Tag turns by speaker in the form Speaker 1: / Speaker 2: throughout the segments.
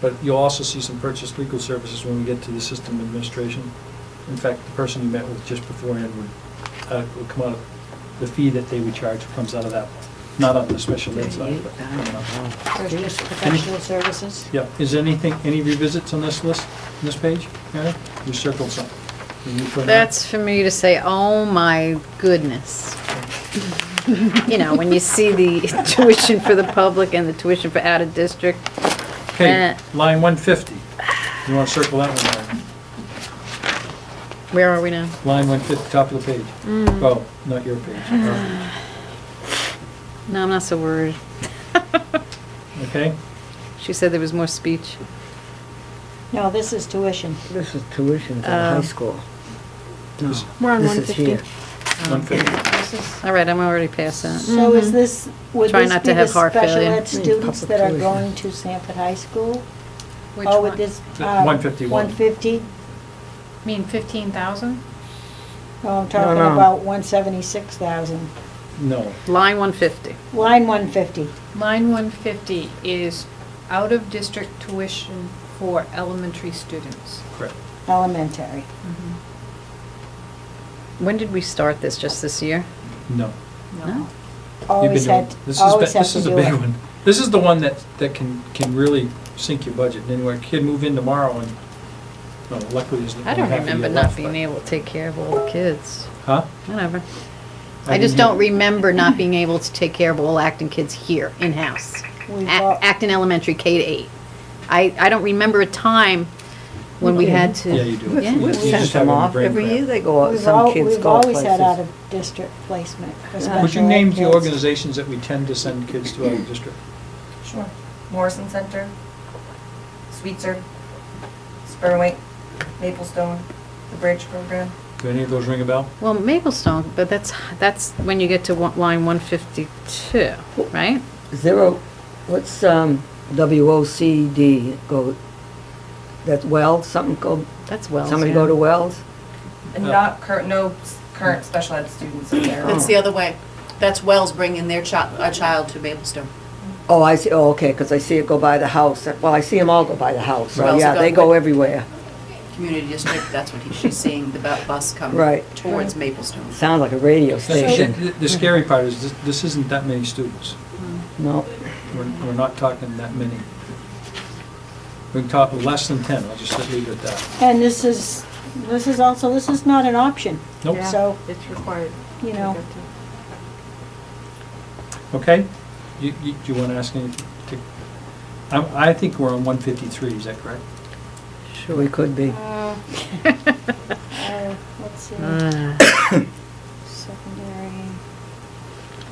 Speaker 1: But you'll also see some purchase legal services when we get to the system administration. In fact, the person you met with just beforehand would, uh, would come out of, the fee that they would charge comes out of that, not on the special ed side, but. coming out.
Speaker 2: There's just professional services?
Speaker 1: Yeah, is there anything, any revisits on this list, on this page? Mary? You circled some. Did you put it on?
Speaker 3: That's for me to say, oh my goodness. You know, when you see the tuition for the public and the tuition for out of district,
Speaker 1: Okay,
Speaker 3: eh.
Speaker 1: line one fifty. You wanna circle that one, Mary?
Speaker 3: where are we now?
Speaker 1: Line one fifty, top of the page. Oh, not your page. Our
Speaker 3: No, I'm not so worried.
Speaker 1: page. Okay?
Speaker 3: She said there was more speech.
Speaker 2: No, this is tuition.
Speaker 4: This is tuition for the high
Speaker 3: Oh.
Speaker 4: school. No,
Speaker 1: This-
Speaker 5: We're on
Speaker 4: this is
Speaker 5: 150.
Speaker 4: here.
Speaker 1: One fifty.
Speaker 2: This is-
Speaker 3: All right, I'm already past that.
Speaker 2: So is this, would
Speaker 3: Mm-hmm. Try
Speaker 2: this
Speaker 3: not
Speaker 2: be
Speaker 3: to
Speaker 2: the
Speaker 3: have heart
Speaker 2: special
Speaker 3: failure. Mm.
Speaker 2: ed students
Speaker 4: Public
Speaker 2: that are
Speaker 4: tuition.
Speaker 2: going to Sanford High School?
Speaker 3: Which
Speaker 2: Oh, with
Speaker 3: one?
Speaker 2: this,
Speaker 1: The
Speaker 2: um,
Speaker 1: 151.
Speaker 2: 150?
Speaker 6: Mean fifteen thousand?
Speaker 2: No, Oh, I'm talking
Speaker 4: no.
Speaker 2: about 176,000.
Speaker 1: No.
Speaker 3: Line 150.
Speaker 2: Line 150.
Speaker 6: Line one fifty is out-of-district tuition for elementary students.
Speaker 1: Correct.
Speaker 2: Elementary.
Speaker 3: When did we start this, just this year?
Speaker 1: No.
Speaker 3: No.
Speaker 6: No.
Speaker 1: You've been
Speaker 2: Always
Speaker 1: doing-
Speaker 2: had,
Speaker 1: this is
Speaker 2: always
Speaker 1: ba-
Speaker 2: have to do
Speaker 1: This is a big
Speaker 2: it.
Speaker 1: one. This is the one that, that can, can really sink your budget. And Anyway, kid move in tomorrow and, no, luckily there's.
Speaker 3: I don't
Speaker 1: only half a
Speaker 3: remember
Speaker 1: year
Speaker 3: not
Speaker 1: left,
Speaker 3: being
Speaker 1: but-
Speaker 3: able to take care of all the kids.
Speaker 1: Huh?
Speaker 3: Whatever.
Speaker 1: I
Speaker 3: I just
Speaker 1: didn't
Speaker 3: don't
Speaker 1: hear.
Speaker 3: remember not being able to take care of all Acton kids here, in-house.
Speaker 2: We've
Speaker 3: Ac-
Speaker 2: got-
Speaker 3: Acton Elementary, K to eight. I, I don't remember a time when we had to.
Speaker 1: Yeah, you do.
Speaker 4: We've-
Speaker 3: Yeah.
Speaker 1: You
Speaker 4: We've
Speaker 1: just
Speaker 4: sent
Speaker 1: have
Speaker 4: them
Speaker 1: it in
Speaker 4: off.
Speaker 1: brain
Speaker 4: Every
Speaker 1: cramp.
Speaker 4: year they go out,
Speaker 2: We've
Speaker 4: some
Speaker 2: al-
Speaker 4: kids
Speaker 2: we've
Speaker 4: go out
Speaker 2: always
Speaker 4: places.
Speaker 2: had out-of-district placement for special ed
Speaker 1: Would you name the
Speaker 2: kids.
Speaker 1: organizations that we tend to send kids to out of district?
Speaker 7: Sure. Morrison Center, Sweetser, Spurway, Maplestone, the Bridge Program.
Speaker 1: Do any of those ring a bell?
Speaker 3: Well, Maplestone, but that's, that's when you get to one- line one fifty-two, right?
Speaker 4: Zero, what's, um, WOCD go, that's Wells, something go,
Speaker 3: That's Wells.
Speaker 4: somebody
Speaker 3: yeah.
Speaker 4: go to Wells?
Speaker 7: And
Speaker 1: Yeah.
Speaker 7: not current, no s- current special ed students in there.
Speaker 8: That's the other way. That's Wells bringing their child, a child to Maplestone.
Speaker 4: Oh, I see, oh, okay, because I see it go by the house. Well, I see them all go by the house. So,
Speaker 8: Wells
Speaker 4: yeah,
Speaker 8: go
Speaker 4: they go
Speaker 8: with-
Speaker 4: everywhere.
Speaker 8: Community District, that's what he- she's seeing, the bu- bus come
Speaker 4: Right.
Speaker 8: towards Maplestone.
Speaker 4: Sounds like a radio
Speaker 1: The-
Speaker 4: station.
Speaker 1: The the scary part is, this- this isn't that many students.
Speaker 4: No,
Speaker 1: We're, we're not talking that many. We can talk less than 10, I'll just leave it at that.
Speaker 2: And this is, this is also, this is not an option.
Speaker 1: Nope.
Speaker 6: Yeah,
Speaker 2: So,
Speaker 6: Oh, It's required.
Speaker 2: you know.
Speaker 1: Okay? You, you, do you want to ask any, to- I, I think we're on 153, is that correct?
Speaker 4: sure we could be.
Speaker 2: uh, uh, Let's see, secondary.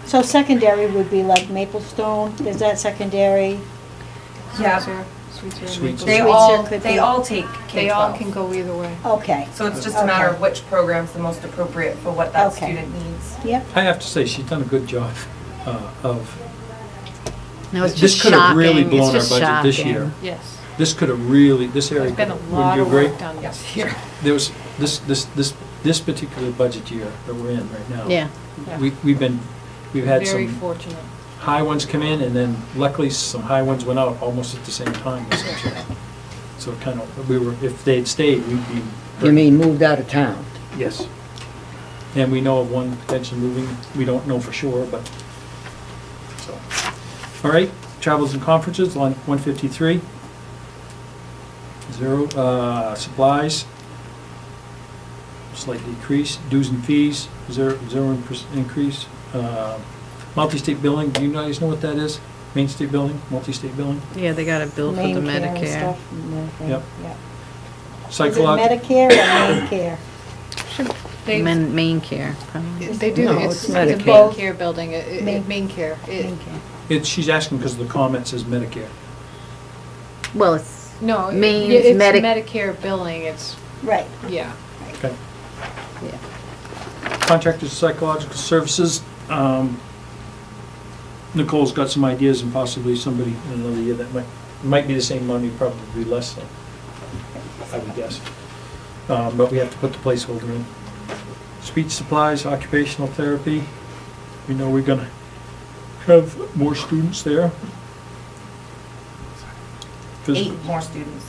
Speaker 2: So secondary would be like Maplestone, is that secondary?
Speaker 6: Yeah.
Speaker 7: Yeah,
Speaker 1: Sweetser.
Speaker 7: they
Speaker 2: Sweetser
Speaker 7: all,
Speaker 2: could
Speaker 7: they
Speaker 2: be-
Speaker 7: all take
Speaker 6: They all can
Speaker 7: K-12.
Speaker 6: go either way.
Speaker 2: Okay,
Speaker 7: So it's just a matter of
Speaker 2: Okay.
Speaker 7: which program's the most appropriate for what that
Speaker 2: Okay.
Speaker 7: student needs.
Speaker 2: yep.
Speaker 1: I have to say, she's done a good job uh, of,
Speaker 3: No, it's
Speaker 1: This
Speaker 3: just
Speaker 1: could have really
Speaker 3: shocking. It's
Speaker 1: blown our
Speaker 3: just
Speaker 1: budget this
Speaker 3: shocking.
Speaker 1: year.
Speaker 6: Yes.
Speaker 1: this could have really, this area.
Speaker 6: There's been a
Speaker 1: wouldn't
Speaker 6: lot
Speaker 1: you
Speaker 6: of
Speaker 1: agree?
Speaker 6: work done this
Speaker 7: Yes.
Speaker 6: year.
Speaker 1: There was, this, this, this, this particular budget year that we're in right now.
Speaker 3: Yeah.
Speaker 6: Yeah.
Speaker 1: We, we've been, we've had
Speaker 6: Very
Speaker 1: some
Speaker 6: fortunate.
Speaker 1: high ones come in, and then luckily, some high ones went out almost at the same time, essentially. So it kind of, we were, if they'd stayed, we'd be.
Speaker 4: You mean moved out of town?
Speaker 1: Yes. And we know of one potentially moving, we don't know for sure, but, so. All right, travels and conferences, line 153. Zero, uh, supplies, slight decrease, dues and fees, zero, zero in- increase. Uh, Multi-state billing, do you guys know what that is? Main state billing, multi-state billing?
Speaker 3: Yeah, they got a bill for the
Speaker 2: Main care and
Speaker 3: Medicare.
Speaker 2: stuff and everything,
Speaker 1: Yep.
Speaker 2: yep. Is it
Speaker 1: Psychological,
Speaker 2: Medicare or main care?
Speaker 6: They-
Speaker 3: Men, main care, probably.
Speaker 6: They do,
Speaker 4: No,
Speaker 6: it's
Speaker 4: it's
Speaker 6: the main
Speaker 4: Medicaid.
Speaker 6: care building, it- it-
Speaker 2: Main-
Speaker 6: it- main care. It-
Speaker 2: Main care.
Speaker 1: it's, she's asking because the comment says Medicare.
Speaker 3: Well, it's,
Speaker 6: No, it-
Speaker 3: Means
Speaker 6: yeah, it's
Speaker 3: medic-
Speaker 6: Medicare billing, it's,
Speaker 2: Right,
Speaker 6: yeah.
Speaker 1: Okay.
Speaker 3: Yeah.
Speaker 1: Contracted psychological services, um, Nicole's got some ideas and possibly somebody in another year that might, might be the same money, probably less than, I would guess. Um, but we have to put the placeholder in. Speech supplies, occupational therapy, we know we're gonna have more students there. 'Cause-
Speaker 7: eight more students.